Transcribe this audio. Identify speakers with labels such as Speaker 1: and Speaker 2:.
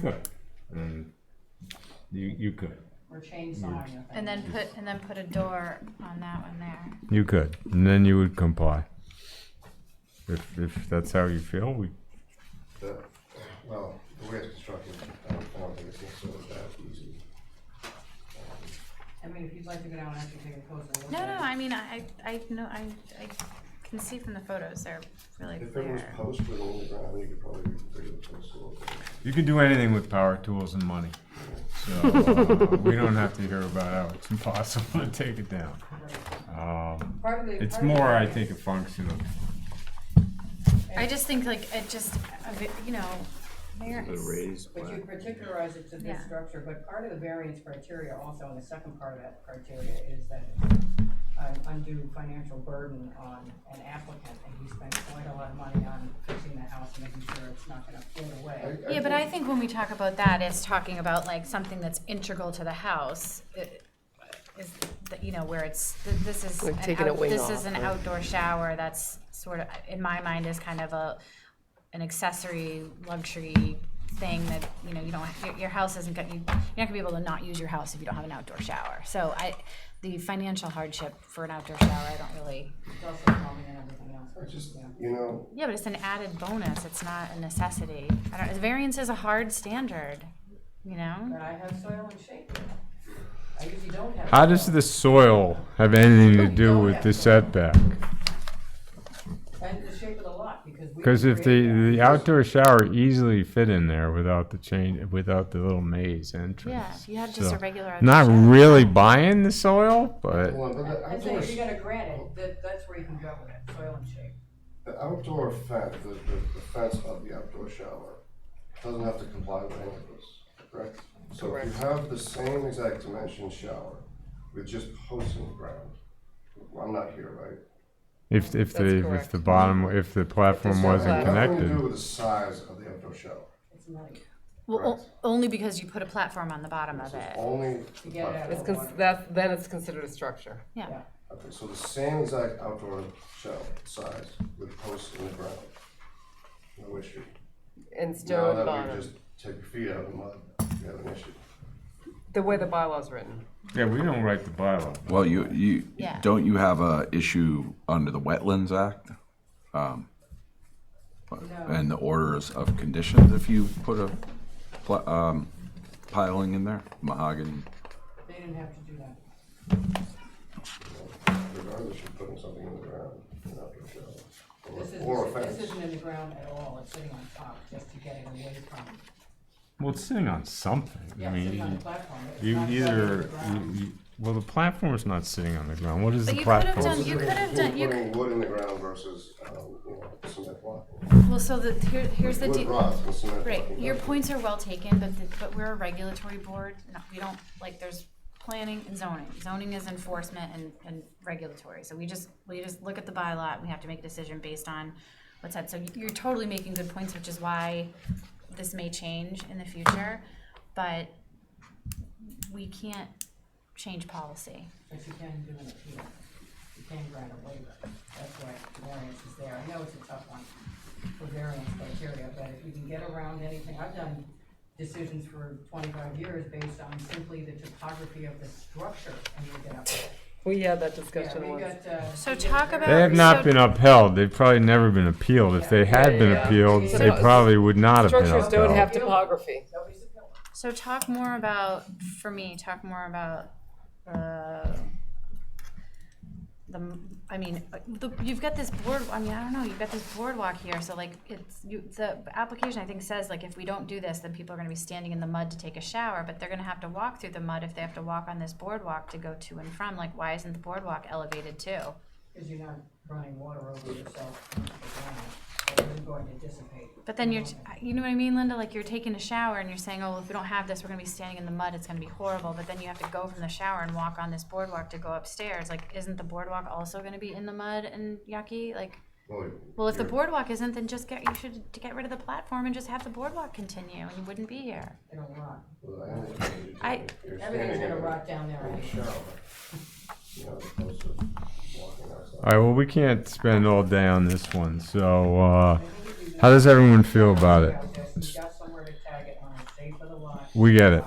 Speaker 1: Good. And you, you could.
Speaker 2: Or chainsawing the thing.
Speaker 3: And then put, and then put a door on that one there.
Speaker 1: You could, and then you would comply. If, if that's how you feel, we,
Speaker 4: The, uh, well, the way it's constructed, I don't, I don't think it's necessarily that easy.
Speaker 2: I mean, if you'd like to go down and actually take a closer look.
Speaker 3: No,
Speaker 2: at
Speaker 3: no,
Speaker 2: it.
Speaker 3: I mean, I, I I know, I, I can see from the photos, they're really
Speaker 4: If it was
Speaker 3: clear.
Speaker 4: post with only ground, you could probably figure the post a little bit.
Speaker 1: you can do anything with power tools and money. So, uh, we don't have to hear about how it's impossible to take it down. Um,
Speaker 2: Part of the-
Speaker 1: it's
Speaker 2: part of the
Speaker 1: more, I
Speaker 2: variance-
Speaker 1: think, a function of,
Speaker 3: I just think like, it just, a bit, you know, variance.
Speaker 2: But you particularize it to this
Speaker 3: Yeah.
Speaker 2: structure, but part of the variance criteria also, and the second part of that criteria is that an undue financial burden on an applicant, and he spent quite a lot of money on fixing the house, making sure it's not gonna float away.
Speaker 4: I- I
Speaker 3: Yeah, but I
Speaker 4: think-
Speaker 3: think when we talk about that, it's talking about like something that's integral to the house. It- Is, that, you know, where it's, th- this is,
Speaker 5: Like
Speaker 3: an
Speaker 5: taking a
Speaker 3: out-
Speaker 5: wing
Speaker 3: this
Speaker 5: off,
Speaker 3: is an
Speaker 5: right?
Speaker 3: outdoor shower that's sort of, in my mind, is kind of a, an accessory luxury thing that, you know, you don't, your, your house isn't gonna, you- you're not gonna be able to not use your house if you don't have an outdoor shower. So I, the financial hardship for an outdoor shower, I don't really,
Speaker 2: It's also plumbing and everything else.
Speaker 4: I just,
Speaker 2: Yeah.
Speaker 4: you know,
Speaker 3: yeah, but it's an added bonus, it's not a necessity. I don't, variance is a hard standard, you know?
Speaker 2: But I have soil and shape. I usually don't have.
Speaker 1: how does
Speaker 2: soil.
Speaker 1: the soil have anything to do with the setback?
Speaker 2: And the shape of the lot, because we.
Speaker 1: Because if
Speaker 2: create that.
Speaker 1: the, the outdoor shower easily fit in there without the chain, without the little maze entrance.
Speaker 3: Yeah, if you had just
Speaker 1: so-
Speaker 3: a regular.
Speaker 1: Not
Speaker 3: outdoor shower.
Speaker 1: really buying the soil, but
Speaker 4: well, but the
Speaker 2: And so if you
Speaker 4: outdoor,
Speaker 2: got a granite, that, that's where you can go with it, soil and shape.
Speaker 4: the outdoor fence, the, the the fence of the outdoor shower doesn't have to comply with any of this, correct? So if you have the same exact dimension shower with just posts in the ground, well, I'm not here, right?
Speaker 1: if, if the, if
Speaker 5: correct.
Speaker 1: the bottom, if the platform wasn't
Speaker 4: It has Nothing to do
Speaker 1: connected.
Speaker 4: with the size of the outdoor shower.
Speaker 2: It's muddy.
Speaker 3: Well, o-
Speaker 4: Right.
Speaker 3: only because you put a platform on the bottom of
Speaker 4: This is
Speaker 3: it.
Speaker 4: only.
Speaker 2: To get it out
Speaker 5: It's
Speaker 2: of the
Speaker 5: cons-
Speaker 2: water.
Speaker 5: that, then it's considered a structure.
Speaker 3: Yeah.
Speaker 4: Okay, so the same exact outdoor shell size with posts in the ground. No issue.
Speaker 5: And
Speaker 4: Now
Speaker 5: stone
Speaker 4: that we
Speaker 5: bottom,
Speaker 4: just take your feet out of the mud, you have an issue.
Speaker 5: the way the bylaw's written.
Speaker 1: Yeah, we don't write the bylaw.
Speaker 6: Well, you, you,
Speaker 3: Yeah.
Speaker 6: don't you have a issue under the Wetlands Act? um, And the orders of conditions if you put a pl- um, piling in there, mahogany?
Speaker 2: They didn't have to do that.
Speaker 4: Regardless, you're putting something in the ground, in an outdoor
Speaker 2: This
Speaker 4: shell. Or- Or a
Speaker 2: isn't, this
Speaker 4: fence.
Speaker 2: isn't in the ground at all, it's sitting on top, just to get it away from,
Speaker 1: Well, it's sitting on something. I
Speaker 2: yeah, it's sitting on the
Speaker 1: mean,
Speaker 2: platform. but it's
Speaker 1: you
Speaker 2: not sitting on the
Speaker 1: either,
Speaker 2: ground.
Speaker 1: you- you- well, the platform's not sitting on the ground. What is
Speaker 3: But
Speaker 1: the
Speaker 3: you could have
Speaker 1: platform?
Speaker 3: done- you could have done- you
Speaker 4: Putting wood in the ground versus, um, you know, cement block.
Speaker 3: Well, so the, here, here's the
Speaker 4: Wood
Speaker 3: deal.
Speaker 4: rods with cement
Speaker 3: Right,
Speaker 4: blocking
Speaker 3: your
Speaker 4: doesn't.
Speaker 3: points are well taken, but, the- but we're a regulatory board, no, we don't, like, there's planning and zoning. Zoning is enforcement and, and regulatory, so we just, we just look at the bylaw, and we have to make a decision based on what's said. So you- you're totally making good points, which is why this may change in the future, but we can't change policy.
Speaker 2: But you can do an appeal, you can grant a waiver, that's why variance is there, I know it's a tough one for variance criteria, but if you can get around anything, I've done decisions for twenty-five years based on simply the topography of the structure, and you get up.
Speaker 5: We had that
Speaker 2: Yeah,
Speaker 5: discussion
Speaker 2: we
Speaker 5: once.
Speaker 2: got, uh.
Speaker 3: So
Speaker 2: we got
Speaker 3: talk
Speaker 2: very-
Speaker 3: about-
Speaker 1: They have
Speaker 3: So-
Speaker 1: not been upheld. They've probably never been appealed. If they had been
Speaker 5: Yeah.
Speaker 1: appealed,
Speaker 2: So
Speaker 1: they
Speaker 2: it's-
Speaker 1: probably would not have been
Speaker 5: Structures don't have
Speaker 1: upheld.
Speaker 5: topography.
Speaker 2: Nobody's appealing.
Speaker 3: So talk more about, for me, talk more about, uh, the, m- I mean, uh, the, you've got this board, I mean, I don't know, you've got this boardwalk here, so like, it's, you, the application, I think, says like, if we don't do this, then people are gonna be standing in the mud to take a shower, but they're gonna have to walk through the mud if they have to walk on this boardwalk to go to and from, like, why isn't the boardwalk elevated too?
Speaker 2: Because you're not running water over yourself, into the ground, so it's going to dissipate.
Speaker 3: But then you're, t- you know what I mean, Linda? Like you're taking a shower and you're saying, oh, if we don't have this, we're gonna be standing in the mud. It's gonna be horrible. But then you have to go from the shower and walk on this boardwalk to go upstairs. Like, isn't the boardwalk also gonna be in the mud and yucky? Like,
Speaker 4: Well,
Speaker 3: well, if the
Speaker 4: you're-
Speaker 3: boardwalk isn't, then just get, you should to get rid of the platform and just have the boardwalk continue and you wouldn't be here.
Speaker 2: It'll rot.
Speaker 4: Well, I understand you're
Speaker 3: I-
Speaker 4: doing- you're
Speaker 2: Everything's
Speaker 4: standing
Speaker 2: gonna
Speaker 4: in a-
Speaker 2: rot down there
Speaker 4: in a
Speaker 2: anyway.
Speaker 4: shower. You know, as opposed to walking outside.
Speaker 1: All right, well, we can't spend all day on this one, so, uh, how does everyone feel about it?
Speaker 2: You've got somewhere to tag it on a safe
Speaker 7: for the lot.
Speaker 2: We get it.